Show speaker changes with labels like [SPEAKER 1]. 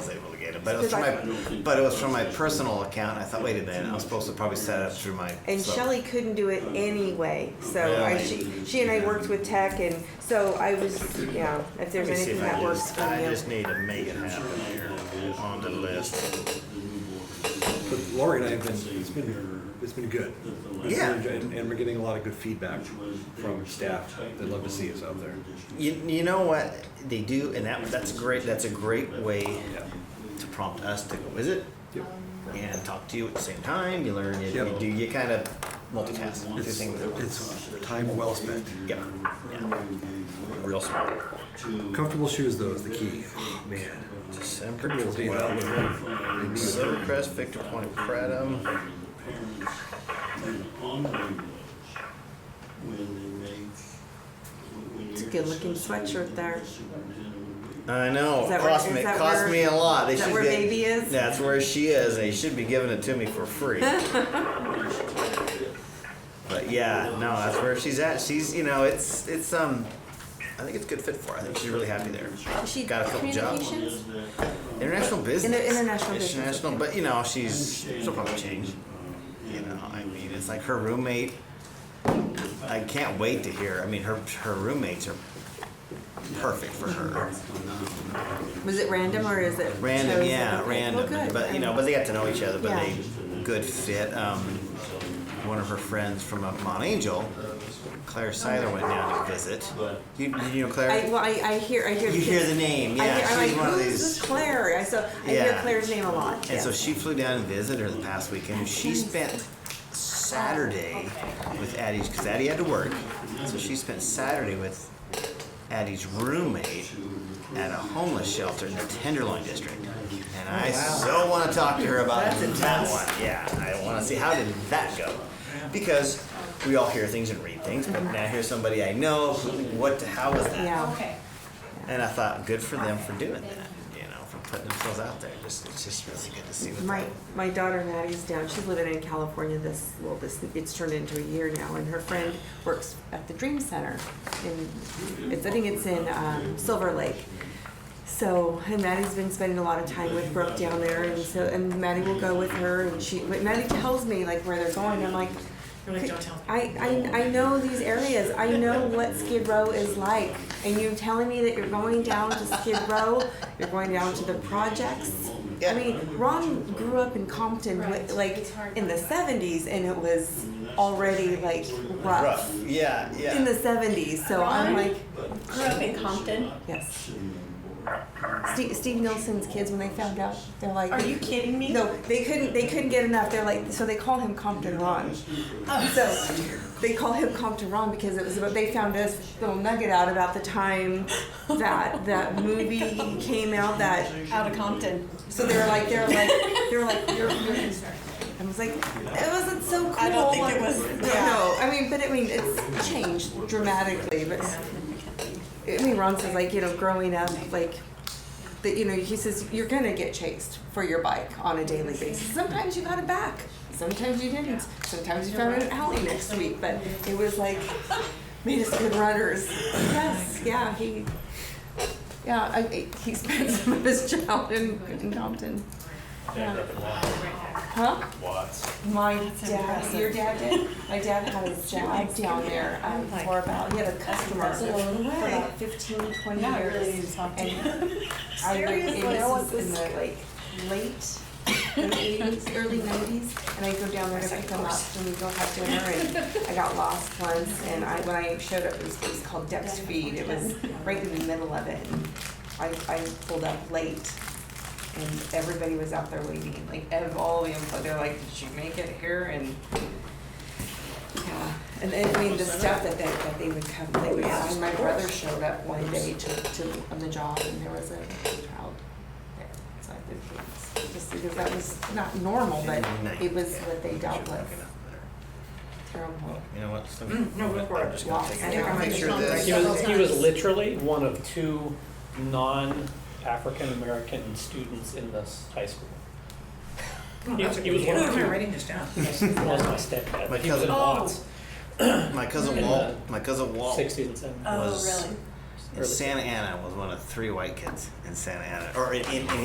[SPEAKER 1] but it was
[SPEAKER 2] Because
[SPEAKER 1] from
[SPEAKER 2] I-
[SPEAKER 1] my, but it was from my personal account. and I thought, wait a minute, I'm supposed to probably set it up through my.
[SPEAKER 2] And
[SPEAKER 1] so-
[SPEAKER 2] Shelley couldn't do it anyway, so I,
[SPEAKER 1] Really?
[SPEAKER 2] she, she and I worked with tech, and so I was, yeah, if
[SPEAKER 3] Let
[SPEAKER 2] there's
[SPEAKER 3] me see
[SPEAKER 2] anything
[SPEAKER 3] if I
[SPEAKER 2] that works
[SPEAKER 3] just,
[SPEAKER 2] for
[SPEAKER 3] I
[SPEAKER 2] you.
[SPEAKER 3] just need to make it happen here on the list.
[SPEAKER 4] But Lori and I have been, it's been, it's been good.
[SPEAKER 1] Yeah.
[SPEAKER 4] And, and we're getting a lot of good feedback from staff. They'd love to see us out there.
[SPEAKER 1] You, you know what they do, and that that's great. That's a great way to prompt us to go visit
[SPEAKER 4] Yep.
[SPEAKER 1] and talk to you at the same time. You learn. You,
[SPEAKER 4] Yeah.
[SPEAKER 1] you do. You kind of multitask. do things at once.
[SPEAKER 4] It's time well spent.
[SPEAKER 1] Yeah. yeah. Real smart.
[SPEAKER 4] Comfortable shoes though is the key. Man.
[SPEAKER 1] December
[SPEAKER 4] We'll be out with
[SPEAKER 1] 12th.
[SPEAKER 4] them.
[SPEAKER 1] Silvercrest, Victor Point, Predum.
[SPEAKER 2] It's a good-looking sweatshirt there.
[SPEAKER 1] I know.
[SPEAKER 2] Is that where-
[SPEAKER 1] cost
[SPEAKER 2] is
[SPEAKER 1] me
[SPEAKER 2] that
[SPEAKER 1] cost
[SPEAKER 2] where-
[SPEAKER 1] me a lot. They
[SPEAKER 2] is that
[SPEAKER 1] should
[SPEAKER 2] where
[SPEAKER 1] get-
[SPEAKER 2] baby is?
[SPEAKER 1] That's where she is. They should be giving it to me for free. but yeah, no, that's where she's at. She's you know, it's it's um I think it's a good fit for her. I think she's really happy there.
[SPEAKER 5] She
[SPEAKER 1] Got a couple jobs.
[SPEAKER 5] communications?
[SPEAKER 1] International business.
[SPEAKER 2] international business,
[SPEAKER 1] International, but you know, she's she'll probably change. You know, I mean, it's like her roommate. I can't wait to hear. I mean, her her roommates are perfect for her.
[SPEAKER 2] Was it random, or is it?
[SPEAKER 1] Random,
[SPEAKER 2] chose-
[SPEAKER 1] yeah,
[SPEAKER 2] okay,
[SPEAKER 1] random.
[SPEAKER 2] Well, good.
[SPEAKER 1] But you know, but they got to know each other. But
[SPEAKER 2] Yeah.
[SPEAKER 1] they good fit. Um, one of her friends from up Mount Angel, Claire Seiler, went down to visit. You, you know Claire?
[SPEAKER 2] I, well, I, I hear, I hear.
[SPEAKER 1] you hear
[SPEAKER 2] kids-
[SPEAKER 1] the name,
[SPEAKER 2] I
[SPEAKER 1] yeah?
[SPEAKER 2] hear, I'm
[SPEAKER 1] she's
[SPEAKER 2] like,
[SPEAKER 1] one of
[SPEAKER 2] who's
[SPEAKER 1] these.
[SPEAKER 2] this Claire? I so, I hear
[SPEAKER 1] Yeah.
[SPEAKER 2] Claire's name a lot,
[SPEAKER 1] And
[SPEAKER 2] yeah.
[SPEAKER 1] so she flew down and visited her the past weekend. She spent Saturday with Addie's because Addie had to work. So she spent Saturday with Addie's roommate at a homeless shelter in the Tenderloin district. And I so want to talk to her about that one. Yeah, I want to see how did that go because we all hear things and read things, but now here's somebody I know. Who, what? How was that?
[SPEAKER 2] Yeah.
[SPEAKER 5] Okay.
[SPEAKER 1] And I thought, good for them for doing that, you know, for putting themselves out there. Just, it's just really good to see what
[SPEAKER 2] My
[SPEAKER 1] they-
[SPEAKER 2] my daughter Maddie's down. She's living in California. This well, this it's turned into a year now, and her friend works at the Dream Center. In it's I think it's in um, Silver Lake. So and Maddie's been spending a lot of time with Brooke down there, and so and Maddie will go with her, and she but Maddie tells me like where they're going. I'm like.
[SPEAKER 5] You're like, "Don't tell me."
[SPEAKER 2] I, I, I know these areas. I know what Skid Row is like. And you're telling me that you're going down to Skid Row, you're going down to the projects. I mean, Ron grew up in Compton, with, like in the 70s, and it was already like rough.
[SPEAKER 1] rough. Yeah, yeah.
[SPEAKER 2] In the 70s, so I'm
[SPEAKER 5] Ron?
[SPEAKER 2] like,
[SPEAKER 5] Grew up in Compton.
[SPEAKER 2] yes. Steve, Steve Nilsson's kids, when they found out, they're like,
[SPEAKER 5] Are you kidding me?
[SPEAKER 2] no, they couldn't. They couldn't get enough. They're like, so they call him Compton Ron. So they call him Compton Ron because it was about. They found this little nugget out about the time that that movie came out. That
[SPEAKER 5] Out of Compton.
[SPEAKER 2] so they were like, they were like, they were like, you're, you're I was like, it wasn't so cool.
[SPEAKER 5] I don't think it was-
[SPEAKER 2] No, no, I mean, but I mean, it's changed dramatically. But I mean, Ron says like, you know, growing up, like, that you know, he says you're gonna get chased for your bike on a daily basis. Sometimes you got it back. Sometimes you didn't. Sometimes you found an alley next week. But it was like made us good runners. Yes, yeah, he. Yeah, I, I- he spent some of his childhood in, in Compton. Huh? My dad, your dad did. My dad had a job down there um, for about, he had a customer
[SPEAKER 5] that's a long
[SPEAKER 2] for
[SPEAKER 5] way.
[SPEAKER 2] about 15, 20
[SPEAKER 5] Not
[SPEAKER 2] years.
[SPEAKER 5] really to talk to
[SPEAKER 2] And
[SPEAKER 5] you.
[SPEAKER 2] I like,
[SPEAKER 5] Seriously,
[SPEAKER 2] and
[SPEAKER 5] I want
[SPEAKER 2] this is in the
[SPEAKER 5] this-
[SPEAKER 2] like late eighties, early nineties, and I go down there to pick them up and we go have dinner and I got lost once and I, when I showed up, it was, it was called Dex Feed, it was right in the middle of it. and I, I pulled up late and everybody was out there waiting, like ev- all the employees, they're like, did you make it here? And yeah, and then, I mean, the stuff that they, that they would come, they would, and my brother showed up one day to, to, on the job, and there was a child there, so I think it was, just because that was not normal, but it was what they dealt with, terrible.
[SPEAKER 1] You know what? Some,
[SPEAKER 2] Mm,
[SPEAKER 5] no, go for
[SPEAKER 1] I'm
[SPEAKER 5] it.
[SPEAKER 1] just gonna take
[SPEAKER 2] I think I'm
[SPEAKER 1] a picture of
[SPEAKER 5] gonna
[SPEAKER 1] this.
[SPEAKER 6] He was, he was literally one of two non-African-American students in this high school. He was, he was one of two.
[SPEAKER 5] writing this down.
[SPEAKER 6] That was my stepdad.
[SPEAKER 1] My
[SPEAKER 6] He was in
[SPEAKER 1] cousin.
[SPEAKER 6] Watts,
[SPEAKER 1] My cousin
[SPEAKER 6] In
[SPEAKER 1] Walt.
[SPEAKER 6] the
[SPEAKER 1] My cousin Walt.
[SPEAKER 6] sixties and seventies.
[SPEAKER 5] Oh,
[SPEAKER 1] Was-
[SPEAKER 5] really?
[SPEAKER 1] in Santa Ana was one of three white kids in Santa Ana, or in, in, in